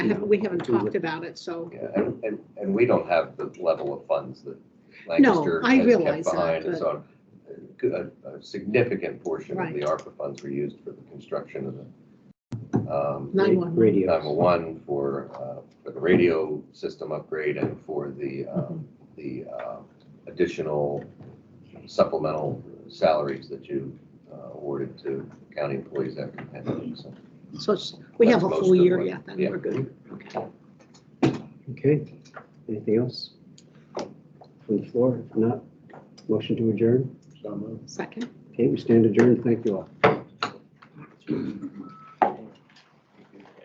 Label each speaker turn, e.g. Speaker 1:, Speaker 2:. Speaker 1: I haven't, we haven't
Speaker 2: Do it.
Speaker 1: talked about it, so,
Speaker 2: Yeah, and, and, and we don't have the level of funds that
Speaker 1: No,
Speaker 2: Lancaster
Speaker 1: I
Speaker 2: has kept
Speaker 1: realize that,
Speaker 2: behind and
Speaker 1: but-
Speaker 2: so on. A, a significant portion of the ARPA funds were used for the construction of the, um,
Speaker 1: Nine one one.
Speaker 2: nine
Speaker 3: Radios.
Speaker 2: one for, uh, for the radio system upgrade and for the, um,
Speaker 1: Mm-hmm.
Speaker 2: the, uh, additional supplemental salaries that you uh, awarded to county employees after the pandemic, so.
Speaker 1: so it's- we
Speaker 2: That's
Speaker 1: have a
Speaker 2: most
Speaker 1: full
Speaker 2: of
Speaker 1: year
Speaker 2: what-
Speaker 1: yet, then
Speaker 2: yeah.
Speaker 1: we're good. Okay.
Speaker 3: Okay, anything else? From the floor, if not, motion to adjourn.
Speaker 1: Second.
Speaker 3: Okay, we stand adjourned, thank you all.